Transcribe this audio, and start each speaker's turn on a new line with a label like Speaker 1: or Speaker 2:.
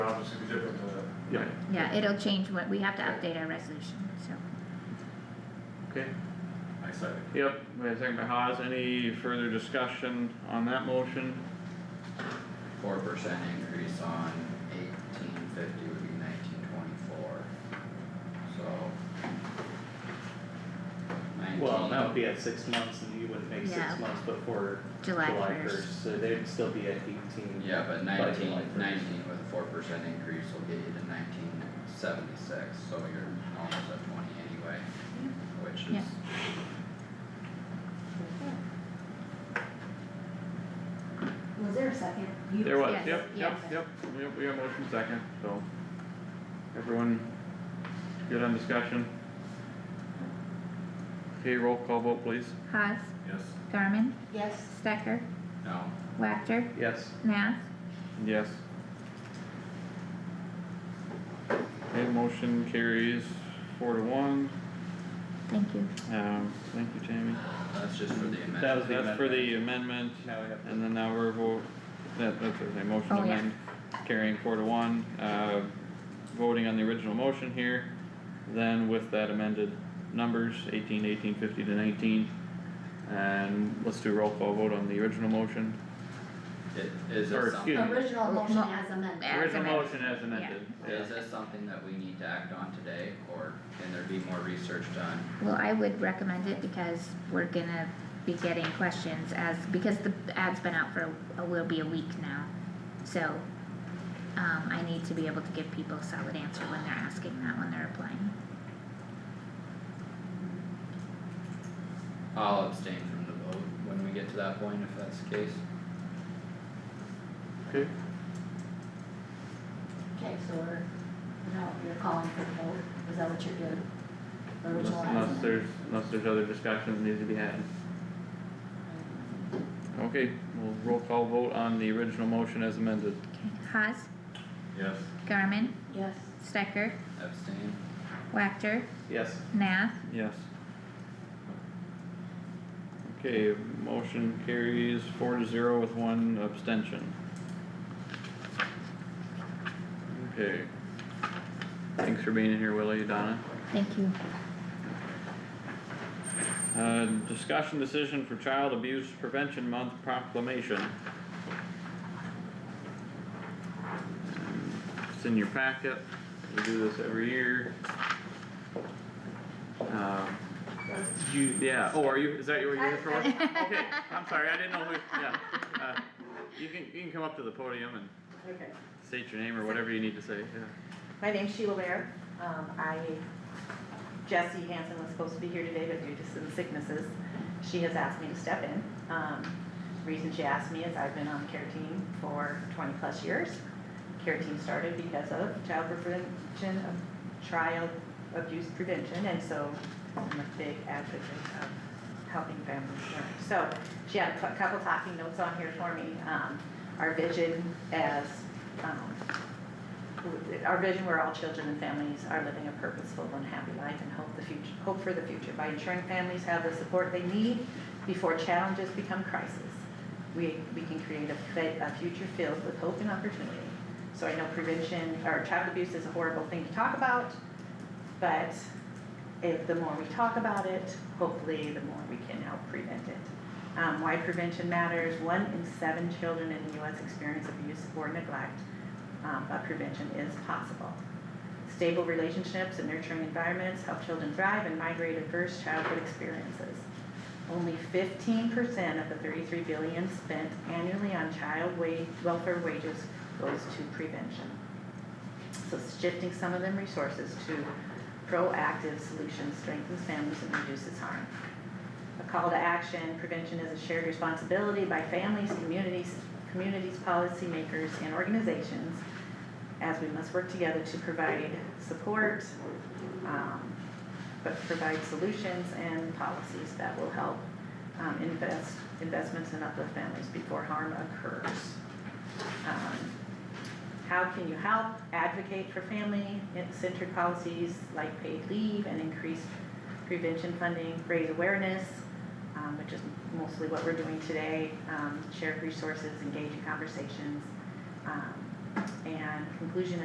Speaker 1: Yeah,
Speaker 2: Yeah, it'll change when, we have to update our resolution, so.
Speaker 1: okay,
Speaker 3: I second.
Speaker 1: yep, we have a second by Haas, any further discussion on that motion?
Speaker 4: Four percent increase on eighteen fifty would be nineteen twenty-four, so.
Speaker 5: Well, that would
Speaker 4: Nineteen,
Speaker 5: be at six months and you wouldn't make
Speaker 2: Yeah.
Speaker 5: six months before
Speaker 2: July
Speaker 5: July
Speaker 2: first.
Speaker 5: first, so they'd still be at eighteen.
Speaker 4: yeah, but
Speaker 5: July
Speaker 4: nineteen,
Speaker 5: first.
Speaker 4: nineteen with a four percent increase will get you to nineteen seventy-six, so you're almost at twenty anyway, which
Speaker 2: Yeah.
Speaker 4: is.
Speaker 6: Was there a second? You-
Speaker 1: There was,
Speaker 2: Yes,
Speaker 1: yep, yep,
Speaker 2: yes.
Speaker 1: yep, yep, we got motion second, so. Everyone good on discussion? Okay, roll call vote please.
Speaker 2: Haas,
Speaker 3: uh, Yes.
Speaker 2: Garmin,
Speaker 6: Yes.
Speaker 2: Stecker,
Speaker 4: No,
Speaker 2: Wactor,
Speaker 5: Yes,
Speaker 2: Nath,
Speaker 1: Yes. Okay, motion carries four to one,
Speaker 2: thank you.
Speaker 1: um, thank you, Tammy.
Speaker 4: that's just for the
Speaker 5: That
Speaker 4: amendment,
Speaker 5: was- the
Speaker 1: That's for the amendment,
Speaker 5: now we have
Speaker 1: and then now we're vote, that, that's everything, motion to
Speaker 2: Oh, yeah.
Speaker 1: amend, carrying four to one, uh, voting on the original motion here. Then with that amended numbers, eighteen, eighteen, fifty to nineteen, and let's do a roll call vote on the original motion.
Speaker 4: It- is
Speaker 1: Or
Speaker 4: this
Speaker 1: excuse
Speaker 4: something,
Speaker 1: me.
Speaker 6: Original motion as amended.
Speaker 2: As
Speaker 1: Original
Speaker 2: amended.
Speaker 1: motion as amended,
Speaker 4: is this something that we need to act on today, or can there be more research done?
Speaker 2: Well, I would recommend it because we're gonna be getting questions as, because the ad's been out for, a- will be a week now. So, um, I need to be able to give people a solid answer when they're asking that, when they're applying.
Speaker 4: I'll abstain from the vote when we get to that point, if that's the case.
Speaker 1: Okay,
Speaker 6: Okay, so we're, no, you're calling for the vote, is that what you're doing?
Speaker 1: unless,
Speaker 6: Original as
Speaker 1: unless
Speaker 6: amended.
Speaker 1: there's, unless there's other discussions that need to be had. Okay, we'll roll call vote on the original motion as amended.
Speaker 2: Haas,
Speaker 3: Yes.
Speaker 2: Garmin,
Speaker 6: Yes.
Speaker 2: Stecker,
Speaker 4: Abstain?
Speaker 2: Wactor,
Speaker 5: yes,
Speaker 2: Nath,
Speaker 1: Yes. Okay, motion carries four to zero with one abstention. Okay. Thanks for being here, Willie, Donna.
Speaker 2: thank you.
Speaker 1: Uh, discussion decision for Child Abuse Prevention Month proclamation. It's in your packet, we do this every year. Um,
Speaker 5: Did you,
Speaker 1: yeah, oh, are you, is that what you're here
Speaker 6: I-
Speaker 1: for? Okay, I'm sorry, I didn't know who, yeah. Uh, You can, you can come up to the podium and
Speaker 7: Okay,
Speaker 1: state your name or whatever you need to say, yeah.
Speaker 7: my name's Sheila Ware, um, I, Jessie Hansen was supposed to be here today, but due to some sicknesses, she has asked me to step in. Um, reason she asked me is I've been on the care team for twenty plus years. Care team started because of child prevention, of child abuse prevention, and so I'm a big advocate of helping families learn. So, she had a cou- couple talking notes on here for me, um, our vision as, um, our vision where all children and families are living a purposeful and happy life and hope the future, hope for the future by ensuring families have the support they need before challenges become crisis. We, we can create a, fe- a future filled with hope and opportunity. So I know prevention, or child abuse is a horrible thing to talk about, but if, the more we talk about it, hopefully the more we can help prevent it. Um, why prevention matters, one in seven children in the US experience abuse or neglect, um, but prevention is possible. Stable relationships and nurturing environments help children thrive and migrate adverse childhood experiences. Only fifteen percent of the thirty-three billion spent annually on child wa- welfare wages goes to prevention. So shifting some of them resources to proactive solutions strengthens families and reduces harm. A call to action, prevention is a shared responsibility by families, communities, communities, policymakers, and organizations as we must work together to provide support, um, but provide solutions and policies that will help um, invest, investments and uplift families before harm occurs. Um, how can you help advocate for family-centered policies like paid leave and increased prevention funding, raise awareness, um, which is mostly what we're doing today, um, share resources, engage in conversations. um, And conclusion